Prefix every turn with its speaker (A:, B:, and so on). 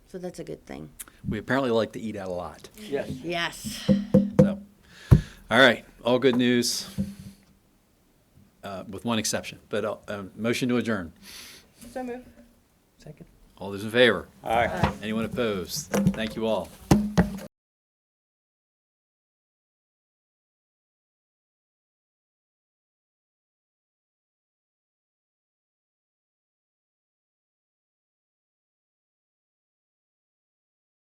A: So that's a good thing.
B: We apparently like to eat out a lot.
C: Yes.
A: Yes.
B: So, all right, all good news, uh, with one exception. But uh, um, motion to adjourn.
D: So moved.
C: Second.
B: All those in favor?
C: All right.
B: Anyone opposed? Thank you all.